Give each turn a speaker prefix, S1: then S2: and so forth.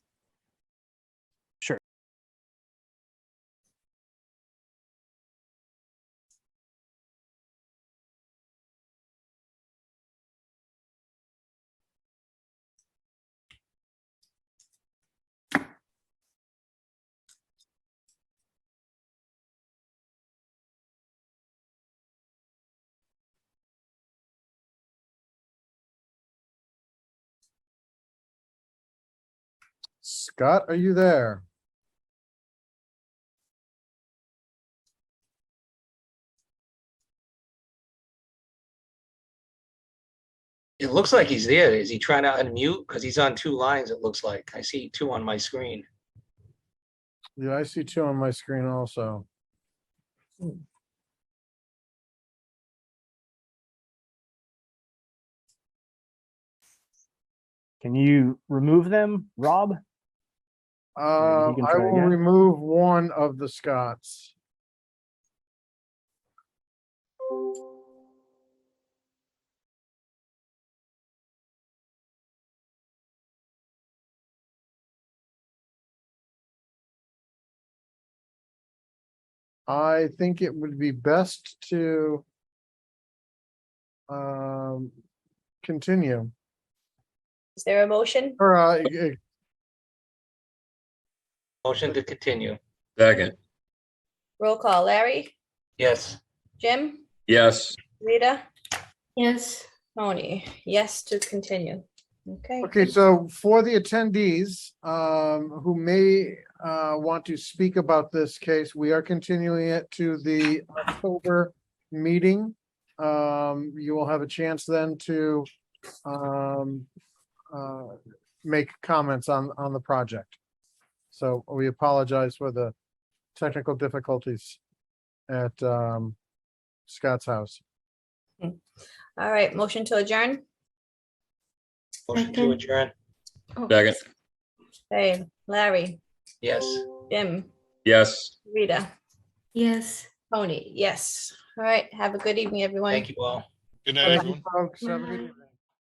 S1: Scott, are you there?
S2: It looks like he's there. Is he trying to unmute? Because he's on two lines, it looks like. I see two on my screen.
S1: Yeah, I see two on my screen also.
S3: Can you remove them, Rob?
S1: Uh,
S3: can
S1: I
S3: try
S1: will
S3: again.
S1: remove one of the Scots. I think it would be best to um, continue
S4: Is there a motion?
S1: or uh, e- e-
S2: Motion to continue.
S5: Second,
S4: Roll call. Larry?
S2: Yes,
S4: Jim?
S5: yes,
S4: Rita?
S6: Yes,
S4: Tony? Yes, to continue. Okay.
S1: Okay, so for the attendees um, who may uh, want to speak about this case, we are continuing it to the October meeting. Um, You will have a chance then to um, uh, make comments on, on the project. So we apologize for the technical difficulties at um, Scott's house.
S4: All right, motion to adjourn.
S2: motion to
S6: Second.
S2: adjourn.
S5: second,
S4: Hey, Larry,
S2: Yes.
S4: Jim,
S5: yes.
S4: Rita,
S6: yes.
S4: Tony, yes. All right, have a good evening, everyone.
S2: Thank you all.
S7: Good
S1: Thank
S7: night,
S1: you,
S7: everyone.
S1: Folks, have a good evening.